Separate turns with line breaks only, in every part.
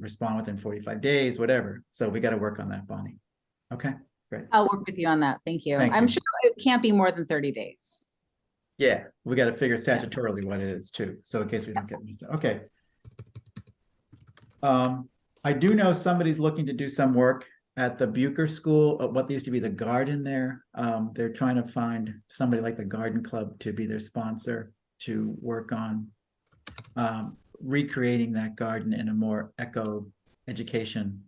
respond within forty-five days, whatever. So we gotta work on that, Bonnie. Okay,
I'll work with you on that. Thank you.
Thank
I'm
you.
sure it can't be more than thirty days.
yeah, we gotta figure statutorily what it is too, so in case we don't get, mixed up. okay. Um, I do know somebody's looking to do some work at the Bucher School, at what used to be the garden there. Um, they're trying to find somebody like the Garden Club to be their sponsor to work on um, recreating that garden in a more eco education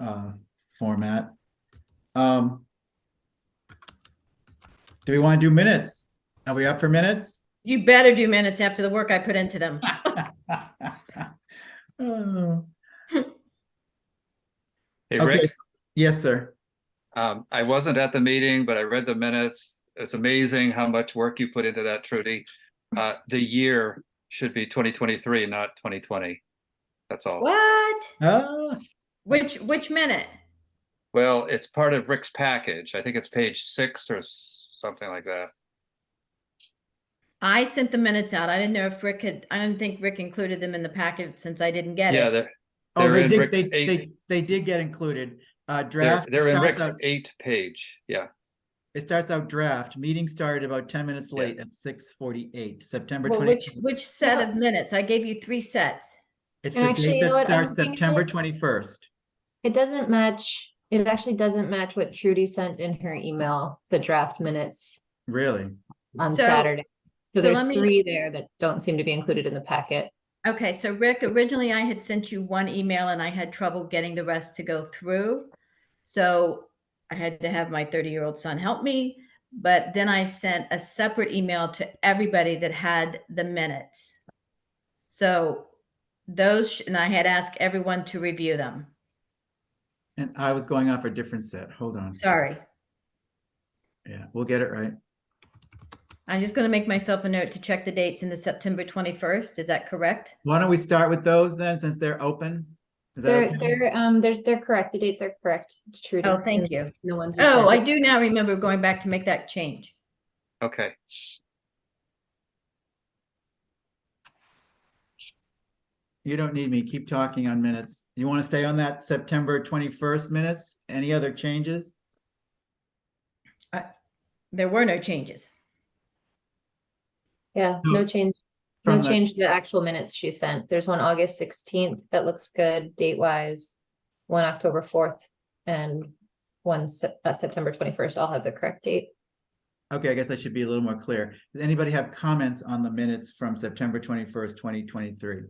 uh, format. Um, do we want to do minutes? Are we up for minutes?
You better do minutes after the work I put into them.
Oh,
Hey,
Okay,
Rick,
yes, sir.
um, I wasn't at the meeting, but I read the minutes. It's amazing how much work you put into that, Trudy. Uh, the year should be twenty twenty-three, not twenty twenty. That's all.
What?
Oh,
Which, which minute?
Well, it's part of Rick's package. I think it's page six or s- something like that.
I sent the minutes out. I didn't know if Rick had, I didn't think Rick included them in the packet since I didn't get
Yeah,
it.
they're,
oh,
They're
they
in
did,
Rick's
they, they,
eight.
they did get included. Uh,
they're,
draft.
they're in
starts
Rick's
out-
eight page. Yeah,
It starts out draft. Meeting started about ten minutes
Yeah.
late at six forty-eight, September
Well,
twenty.
which, which set of minutes? I gave you three sets.
It's
And
the
actually,
date
you
that
know what? I
starts
was thinking
September
it-
twenty-first.
It doesn't match, it actually doesn't match what Trudy sent in her email, the draft minutes
Really?
on
So-
Saturday. So
so
there's
let me-
three there that don't seem to be included in the packet.
Okay, so Rick, originally I had sent you one email and I had trouble getting the rest to go through. So I had to have my 30-year-old son help me, but then I sent a separate email to everybody that had the minutes. So those, sh- and I had asked everyone to review them.
And I was going off a different set. Hold on.
Sorry.
Yeah, we'll get it right.
I'm just going to make myself a note to check the dates in the September 21st. Is that correct?
Why don't we start with those then, since they're open? Is that
They're,
okay?
they're, um, they're, they're correct. The dates are correct, Trudy.
Oh, thank
and
you.
The ones. you
Oh, I
sent.
do now remember going back to make that change.
okay.
You don't need me. Keep talking on minutes. You want to stay on that September twenty-first minutes? Any other changes?
There were no changes.
Yeah, no change,
Oh.
no
From the-
change to the actual minutes she sent. There's one August sixteenth that looks good date wise. One October fourth and one Sep- uh, September twenty-first. I'll have the correct date.
Okay, I guess I should be a little more clear. Does anybody have comments on the minutes from September twenty-first, twenty twenty-three?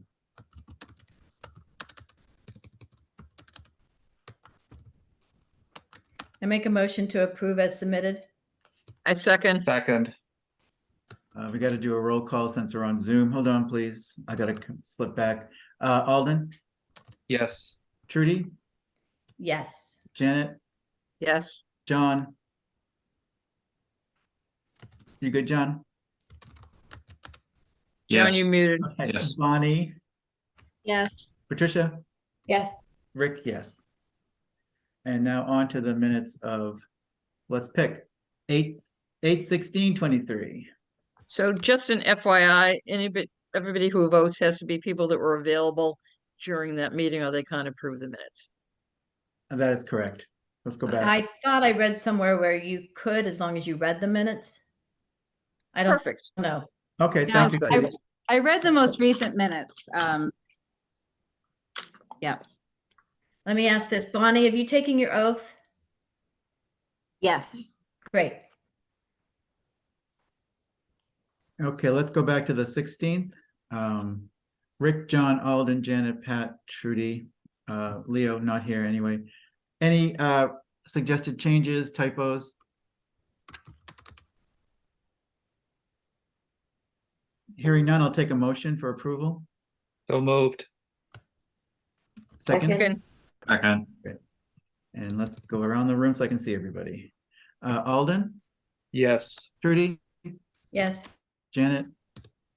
I make a motion to approve as submitted.
I second.
Second,
Uh, we gotta do a roll call since we're on Zoom. Hold on, please. I gotta c- slip back. Uh, Alden,
yes,
Trudy,
Yes.
Janet,
Yes.
John. You good, John?
John, you
Yes.
muted.
Okay,
Yes.
Bonnie,
Yes.
Patricia,
Yes.
Rick, yes. And now on to the minutes of, let's pick, eight, eight sixteen twenty-three.
So just an FYI, anybody, everybody who votes has to be people that were available during that meeting or they can't approve the minutes.
That is correct. Let's go back.
I thought I read somewhere where you could, as long as you read the minutes. I don't
Perfect.
know.
Okay, thank
Sounds
you.
good.
Trudy.
I read the most recent minutes. Um,
Let me ask this. Bonnie, have you taken your oath?
yes.
Great.
Okay, let's go back to the sixteenth. Um, Rick, John, Alden, Janet, Pat, Trudy, uh, Leo, not here anyway. Any, uh, suggested changes, typos? Hearing none, I'll take a motion for approval.
so moved.
Second,
Second,
Second.
and let's go around the room so I can see everybody. Uh, Alden,
Yes,
Trudy,
Yes.
Janet,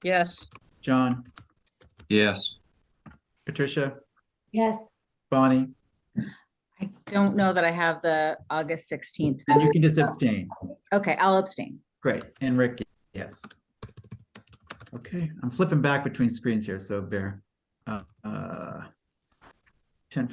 yes.
John,
Yes.
Patricia,
Yes.
Bonnie,
I don't know that I have the August sixteenth.
and you can just abstain.
Okay, I'll abstain.
Great, and Rick, yes. Okay, I'm flipping back between screens here, so bear. Uh, uh,